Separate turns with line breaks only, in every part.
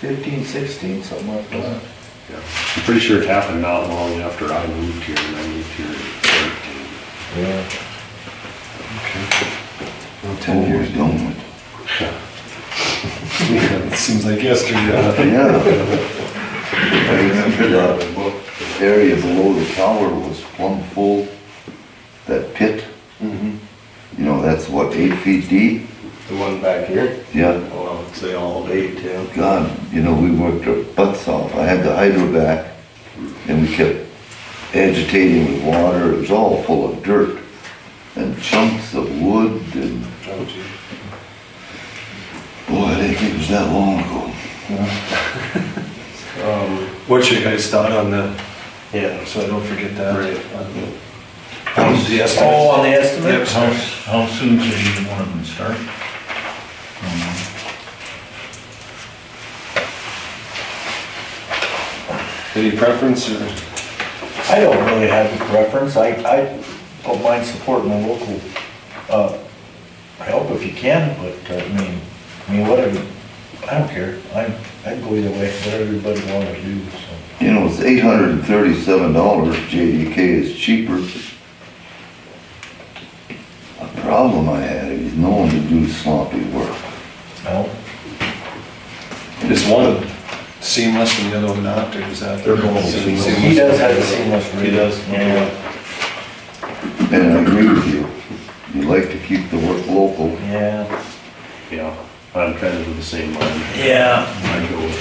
fifteen, sixteen, something like that.
Yeah. I'm pretty sure it happened not long after I moved here, and I moved here in thirteen.
Yeah.
Oh,
Well, Ten years.
done with.
Yeah, It seems like yesterday.
Yeah. I remember that area below the tower was plumb full, that pit,
Mm-hmm.
Mhm.
you know, that's what, eight feet deep?
The one back here?
Yeah,
Well, I would say all eight, yeah.
God, you know, we worked our butts off. I had the hydro back and we kept agitating with water. It was all full of dirt and chunks of wood and,
Oh,
boy, I didn't think it was that long ago.
Um,
What's your guys' thought on that?
yeah,
So I don't forget that.
Um, Oh, on the estimate?
How, how soon could either one of them start? Um,
Any preference or?
I don't really have a preference, I, I don't mind supporting the local, uh, help if you can, but, uh, I mean, I mean, whatever, I don't care, I, I'd go either way, whatever everybody wanna do, so.
You know, it's eight hundred and thirty-seven dollars, JDK is cheaper. A problem I had is no one to do sloppy work.
No,
Is one seamless and the other one not, or is that?
They're both seamless.
he does have the seamless rate.
He does,
Yeah,
And I agree with you, you like to keep the work local.
yeah.
Yeah, I'm kind of of the same line.
Yeah.
I go with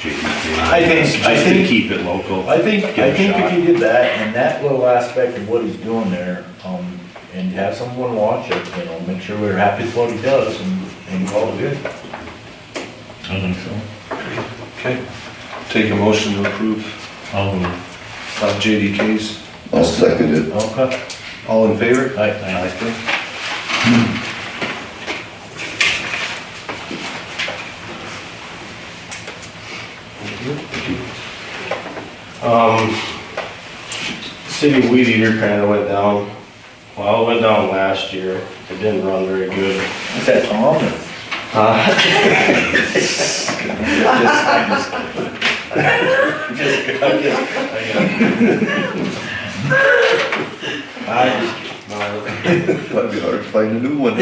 JDK.
I think-
Just
I
to
think-
keep it local.
I think,
Give it
I
a
think
shot.
if you did that, and that little aspect of what he's doing there, um, and have someone watch it, you know, make sure we're happy with what he does, and, and call it good.
I think so.
Okay. Take a motion to approve
I'll move.
of JDK's.
I'll second it.
Okay,
All in favor?
I, I.
Um, city weed eater kinda went down, well, it went down last year, it didn't run very good.
Is that Tom or? I,
Might be hard to find a new one.
Um,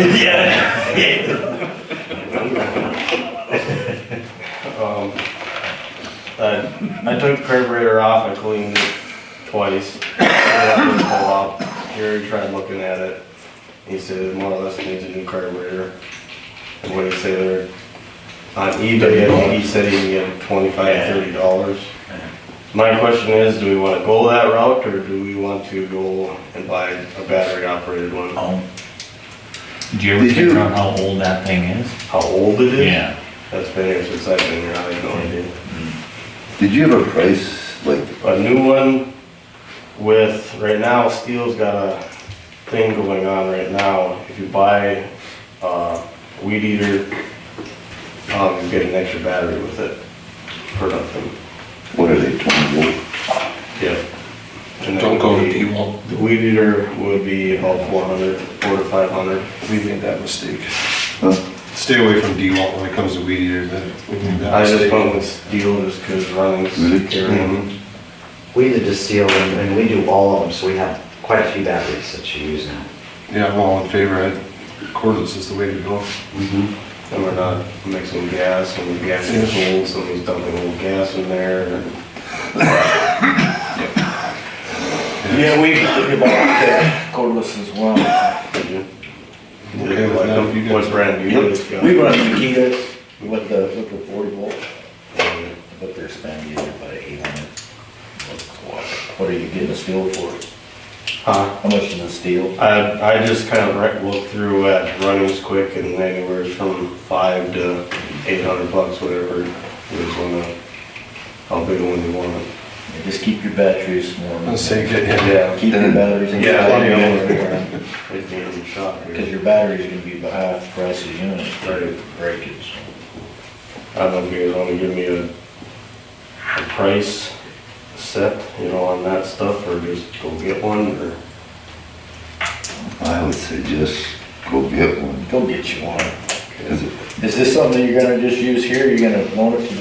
I, I took the carburetor off, I cleaned it twice. I had it pull out. Gary tried looking at it. He said more or less needs a new carburetor. And what he said there, on eBay, he said he can get twenty-five, thirty dollars. My question is, do we wanna go that route or do we want to go and buy a battery operated one?
Oh. Did you ever
Did
figure
you-
out how old that thing is?
How old it is?
Yeah.
That's been here since I've been here, I have no idea.
Did you have a price, like,
a new one with, right now, Steel's got a thing going on right now. If you buy a weed eater, um, you get an extra battery with it for nothing.
what are they, twenty volt?
Yeah. Don't go to people. The weed eater would be about four hundred, four to five hundred.
We made that mistake.
Huh?
Stay away from D-Walt when it comes to weed eater, that, we made that
I just
mistake.
went with Steel just because running's
Really?
carrying.
We did just deal, and and we do all of them, so we have quite a few batteries that you use now.
Yeah, I'm all in favor, I- cordless is the way to go.
And we're not mixing gas, and the gas is cold, somebody's dumping old gas in there. and-
yeah, we, we bought that cordless as well.
Okay with that, if you guys-
Mm-hmm. What brand do you use?
We run the Makita's with the, with the forty volt, but they're spending about eight hundred. What are you getting the steel for?
Huh?
How much is the steel?
I, I just kind of rec- looked through at Runnings Quick and anywhere from five to eight hundred bucks, whatever. You just wanna, how big a one you want.
Yeah, Just keep your batteries warm.
Let's say, get him.
Yeah.
Keep your batteries in.
Yeah, I
Yeah.
It's near the shop
Because
here.
your battery's gonna be about half the price of the unit,
Right.
if you break it, so.
I don't know if you guys wanna give me a, a price set, you know, on that stuff, or just go get one, or?
I would say just go get one,
Go get you one.
because
Is this something that you're gonna just use here, you're gonna loan it to the